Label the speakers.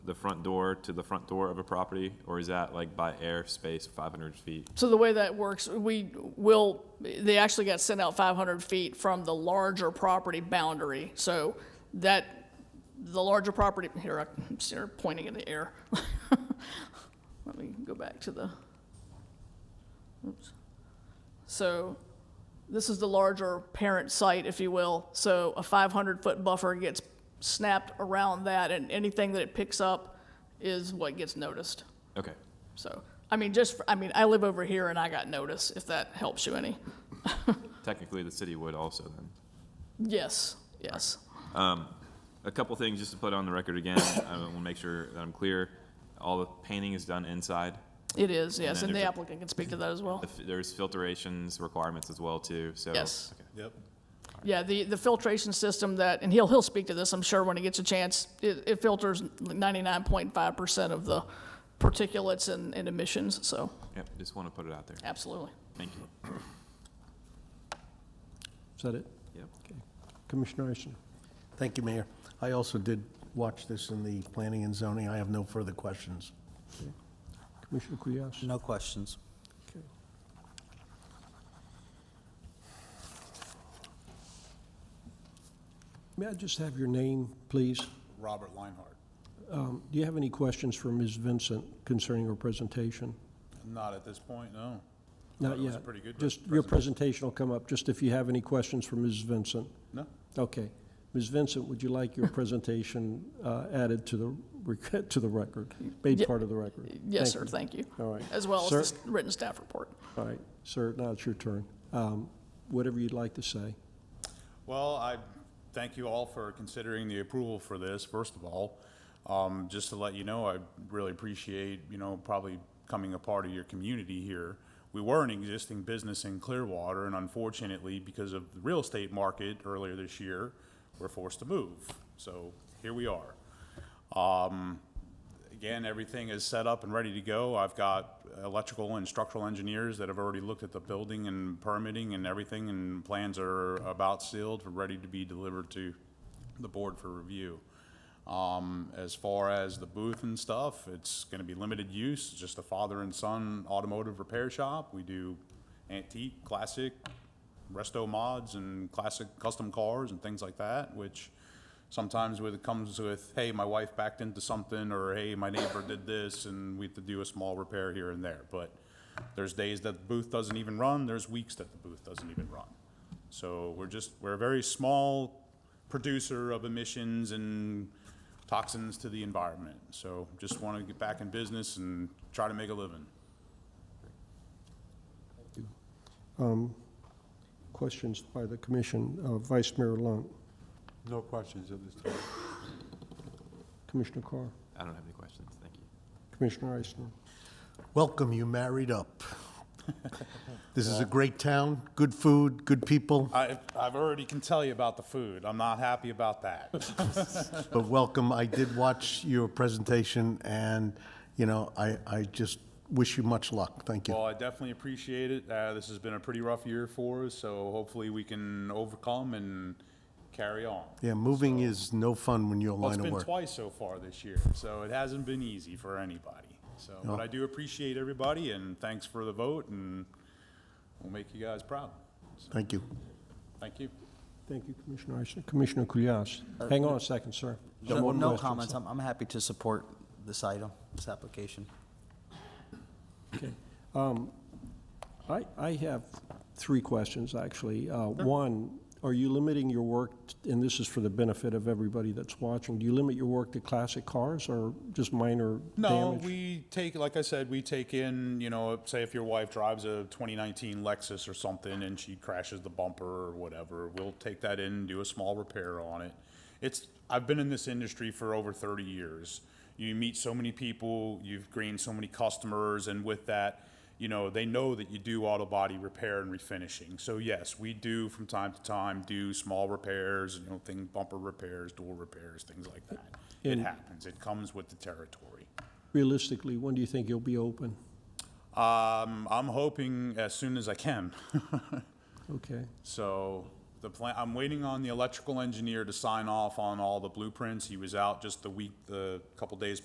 Speaker 1: the front door to the front door of a property, or is that like by airspace, 500 feet?
Speaker 2: So the way that works, we will, they actually got sent out 500 feet from the larger property boundary. So that, the larger property, here, I'm sort of pointing in the air. Let me go back to the, oops. So this is the larger parent site, if you will. So a 500-foot buffer gets snapped around that, and anything that it picks up is what gets noticed.
Speaker 1: Okay,
Speaker 2: So, I mean, just, for- I mean, I live over here and I got notice, if that helps you any.
Speaker 1: technically, the city would also then.
Speaker 2: Yes, yes.
Speaker 1: A couple things just to put on the record again, I want to make sure that I'm clear. All the painting is done inside.
Speaker 2: It is, yes,
Speaker 1: then
Speaker 2: and the
Speaker 1: there's a-
Speaker 2: applicant can speak to that as well.
Speaker 1: If There's filtrations requirements as well too, so.
Speaker 2: Yes.
Speaker 1: okay.
Speaker 3: Yep.
Speaker 2: Yeah, the, the filtration system that, and he'll, he'll speak to this, I'm sure, when he gets a chance, it, it filters 99.5% of the particulates and, and emissions, so,
Speaker 1: Yep, just want to put it out there.
Speaker 2: absolutely.
Speaker 1: Thank you.
Speaker 4: Is that it?
Speaker 1: Yep.
Speaker 4: Okay. Commissioner Eisner?
Speaker 3: Thank you, Mayor. I also did watch this in the planning and zoning. I have no further questions.
Speaker 4: Commissioner Cuias?
Speaker 5: No questions.
Speaker 4: Okay. May I just have your name, please?
Speaker 6: Robert Leinhardt.
Speaker 4: Um, Do you have any questions for Ms. Vincent concerning her presentation?
Speaker 6: Not at this point, no.
Speaker 4: Not
Speaker 6: It was
Speaker 4: yet.
Speaker 6: a pretty good
Speaker 4: Just, your presentation will come up, just if you have any questions for Ms. Vincent.
Speaker 6: No?
Speaker 4: Okay. Ms. Vincent, would you like your presentation uh, added to the, rec- to the record, made
Speaker 2: Ye-
Speaker 4: part of the record?
Speaker 2: Yes,
Speaker 4: Thank
Speaker 2: sir, thank you.
Speaker 4: All right.
Speaker 2: As well as
Speaker 4: Sir-
Speaker 2: the s- written staff report.
Speaker 4: All right, sir, now it's your turn. Um, Whatever you'd like to say.
Speaker 6: Well, I thank you all for considering the approval for this, first of all. Um, Just to let you know, I really appreciate, you know, probably coming a part of your community here. We were an existing business in Clearwater, and unfortunately, because of the real estate market earlier this year, we're forced to move. So here we are. Again, everything is set up and ready to go. I've got electrical and structural engineers that have already looked at the building and permitting and everything, and plans are about sealed, ready to be delivered to the board for review. Um, as far as the booth and stuff, it's gonna be limited use, just a father and son automotive repair shop. We do antique, classic, resto mods and classic custom cars and things like that, which sometimes with, it comes with, hey, my wife backed into something, or hey, my neighbor did this, and we have to do a small repair here and there. But there's days that the booth doesn't even run, there's weeks that the booth doesn't even run. So we're just, we're a very small producer of emissions and toxins to the environment. So just want to get back in business and try to make a living.
Speaker 4: Questions by the commission, Uh, Vice Mayor Lunt,
Speaker 7: No questions at this time.
Speaker 4: Commissioner Carr,
Speaker 1: I don't have any questions, thank you.
Speaker 4: Commissioner Eisner.
Speaker 3: Welcome, you married up. This is a great town, good food, good people,
Speaker 6: I, I've already can tell you about the food. I'm not happy about that.
Speaker 3: but welcome. I did watch your presentation, and, you know, I, I just wish you much luck. Thank you.
Speaker 6: Well, I definitely appreciate it. Uh, this has been a pretty rough year for us, so hopefully we can overcome and carry on.
Speaker 3: Yeah, moving is no fun when you're a
Speaker 6: Well, it's
Speaker 3: line of
Speaker 6: been
Speaker 3: work.
Speaker 6: twice so far this year, so it hasn't been easy for anybody. So, but I do appreciate everybody, and thanks for the vote, and we'll make you guys proud.
Speaker 3: Thank you.
Speaker 6: Thank you.
Speaker 4: Thank you, Commissioner Eisner. Commissioner Cuias, hang on a second, sir. One
Speaker 5: Uh, No
Speaker 4: more
Speaker 5: no
Speaker 4: question,
Speaker 5: comments.
Speaker 4: sir.
Speaker 5: I'm, I'm happy to support this item, this application.
Speaker 4: I, I have three questions, actually. Uh, One, are you limiting your work, t- and this is for the benefit of everybody that's watching, do you limit your work to classic cars or just minor damage?
Speaker 6: No, we take, like I said, we take in, you know, say if your wife drives a 2019 Lexus or something and she crashes the bumper or whatever, we'll take that in, do a small repair on it. It's, I've been in this industry for over 30 years. You meet so many people, you've gained so many customers, and with that, you know, they know that you do auto body repair and refinishing. So yes, we do from time to time do small repairs, you know, thing, bumper repairs, door repairs, things like that. It
Speaker 4: And-
Speaker 6: happens. It comes with the territory.
Speaker 4: Realistically, when do you think you'll be open?
Speaker 6: Um, I'm hoping as soon as I can.
Speaker 4: Okay.
Speaker 6: So the plan, I'm waiting on the electrical engineer to sign off on all the blueprints. He was out just the week, the couple days